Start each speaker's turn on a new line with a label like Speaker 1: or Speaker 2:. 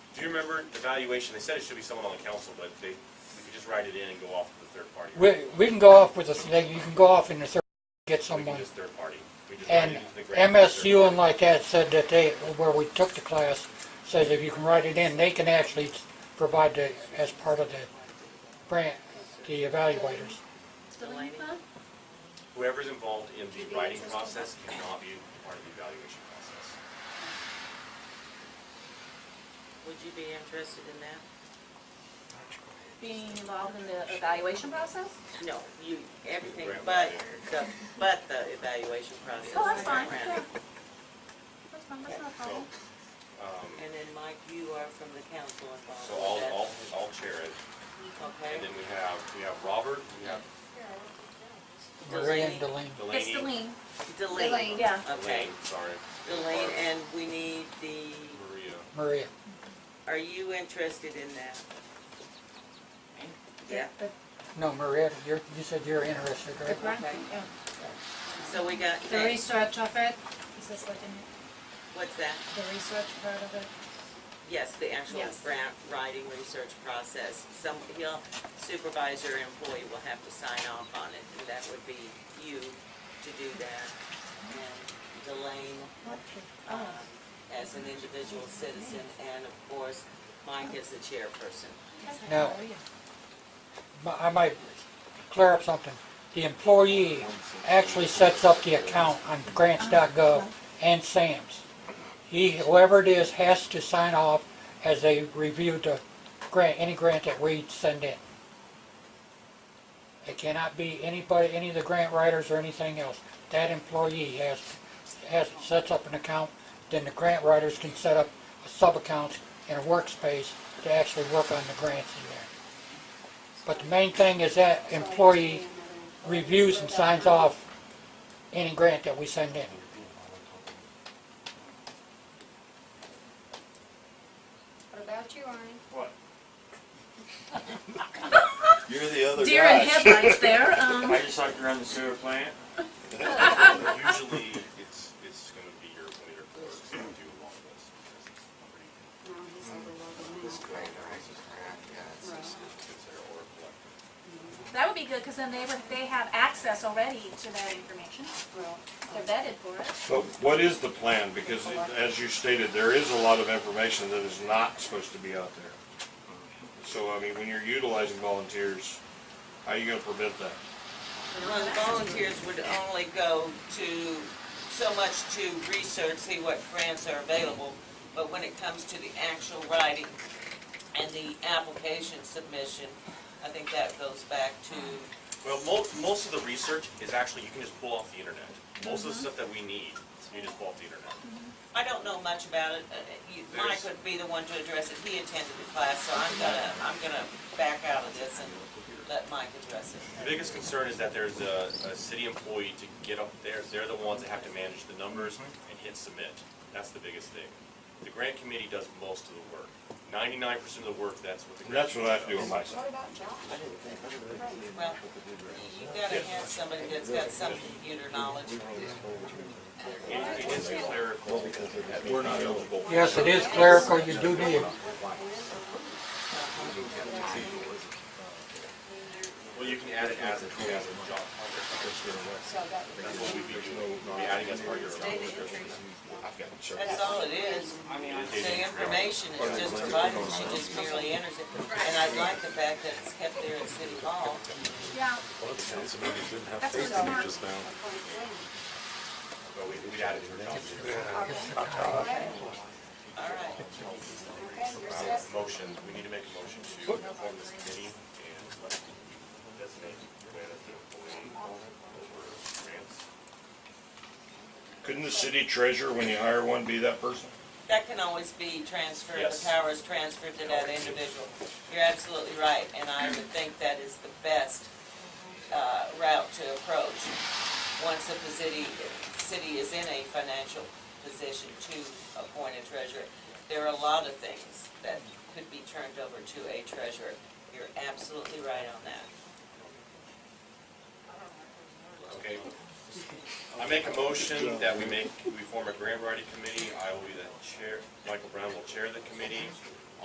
Speaker 1: Do you remember the valuation? They said it should be someone on the council, but they, we could just write it in and go off to the third party.
Speaker 2: We, we can go off with a, they- you can go off in the third,
Speaker 1: We
Speaker 2: get
Speaker 1: can
Speaker 2: someone.
Speaker 1: just third party. We just write
Speaker 2: And
Speaker 1: it into the grant.
Speaker 2: MSU and like that said that they, where we took the class, says if you can write it in, they can actually provide the, as part of the grant, the evaluators.
Speaker 1: Whoever's involved in the writing process cannot be part of the evaluation process.
Speaker 3: Would you be interested in that?
Speaker 4: Being involved in the evaluation process?
Speaker 3: No, you, everything
Speaker 1: Grant
Speaker 3: but
Speaker 1: writer.
Speaker 3: the, but the evaluation process.
Speaker 4: Oh, that's fine,
Speaker 3: Grant.
Speaker 4: yeah. That's fine, that's not a problem.
Speaker 1: Um,
Speaker 3: And then Mike, you are from the council involved.
Speaker 1: So I'll,
Speaker 3: with
Speaker 1: I'll, I'll chair it.
Speaker 3: that,
Speaker 1: And
Speaker 3: Okay?
Speaker 1: then we have, we have Robert, we have
Speaker 2: Maria and
Speaker 3: Delaney.
Speaker 2: Delaney.
Speaker 1: Delaney.
Speaker 4: It's the lean.
Speaker 3: Delane.
Speaker 4: Delane, yeah.
Speaker 3: Okay.
Speaker 1: Delane, sorry.
Speaker 3: Delane, and we need the,
Speaker 1: Maria.
Speaker 2: Maria.
Speaker 3: are you interested in that? Yeah,
Speaker 2: No, Maria, you're, you said you're interested,
Speaker 5: The
Speaker 2: right?
Speaker 5: grant,
Speaker 3: Okay.
Speaker 5: yeah.
Speaker 3: so we got
Speaker 5: The
Speaker 3: that.
Speaker 5: research of it, is this what you mean?
Speaker 3: What's that?
Speaker 5: The research part of it?
Speaker 3: Yes, the actual
Speaker 5: Yes.
Speaker 3: grant writing research process. Some, he'll, supervisor employee will have to sign off on it, and that would be you to do that. And Delane,
Speaker 5: Oh.
Speaker 3: um,
Speaker 5: Ah,
Speaker 3: as an individual citizen, and of course, Mike is the chairperson.
Speaker 2: Now, mi- I might clear up something. The employee actually sets up the account on grants.gov and SAM's. He, whoever it is, has to sign off as they review the grant, any grant that we send in. It cannot be anybody, any of the grant writers or anything else. That employee has, has, sets up an account, then the grant writers can set up sub-accounts and a workspace to actually work on the grants in there. But the main thing is that employee reviews and signs off any grant that we send in.
Speaker 6: What about you, Arnie?
Speaker 7: You're the other
Speaker 4: Deer
Speaker 7: guy.
Speaker 4: in headlights there, um,
Speaker 8: I just like to run the sewer plant.
Speaker 1: Usually, it's, it's gonna be your, one of your clerks that do a lot of this. because it's pretty- it's their or collective.
Speaker 4: that would be good, cause then they would, they have access already to that information. They're vetted for it.
Speaker 7: But what is the plan? Because as you stated, there is a lot of information that is not supposed to be out there. So, I mean, when you're utilizing volunteers, how are you gonna prevent that?
Speaker 3: Well, the volunteers would only go to, so much to research, see what grants are available, but when it comes to the actual writing and the application submission, I think that goes back to,
Speaker 1: Well, most, most of the research is actually, you can just pull off the internet. Most of the stuff that we need, you just pull off the internet.
Speaker 3: I don't know much about it. uh, you- Mike
Speaker 1: There's-
Speaker 3: would be the one to address it, he attended the class, so I'm gonna, I'm gonna back out of this and let Mike address
Speaker 1: The
Speaker 3: it.
Speaker 1: biggest concern is that there's a, a city employee to get up there, they're the ones that have to manage the numbers and hit submit. That's the biggest thing. The grant committee does most of the work. Ninety-nine percent of the work, that's what the
Speaker 7: And
Speaker 1: grant
Speaker 7: that's
Speaker 1: committee
Speaker 7: what I have to do on
Speaker 1: does.
Speaker 7: my side.
Speaker 3: Well, you gotta have somebody that's got some computer knowledge.
Speaker 1: It it is clerical, that we're not eligible.
Speaker 2: Yes, it is clerical, you do need it.
Speaker 1: Well, you can add it as a, as a job. That's what we'd be doing, we'd be adding as part of your job description.
Speaker 3: That's all it is. The information is just provided, she just merely enters it. And I like the fact that it's kept there at City Hall.
Speaker 4: Yeah, that's what's smart.
Speaker 1: But we, we'd add it to our job description.
Speaker 3: All right.
Speaker 1: Uh, Motion, we need to make a motion to form this committee and let designate Joanna as the employee over grants.
Speaker 7: Couldn't the city treasurer, when you hire one, be that person?
Speaker 3: That can always be transferred,
Speaker 1: Yes.
Speaker 3: the power is transferred to that individual. You're absolutely right, and I would think that is the best uh, route to approach. Once the city, city is in a financial position to appoint a treasurer, there are a lot of things that could be turned over to a treasurer. You're absolutely right on that.
Speaker 1: Okay. I make a motion that we make, we form a grant writing committee. I will be the chair, Michael Brown will chair the committee.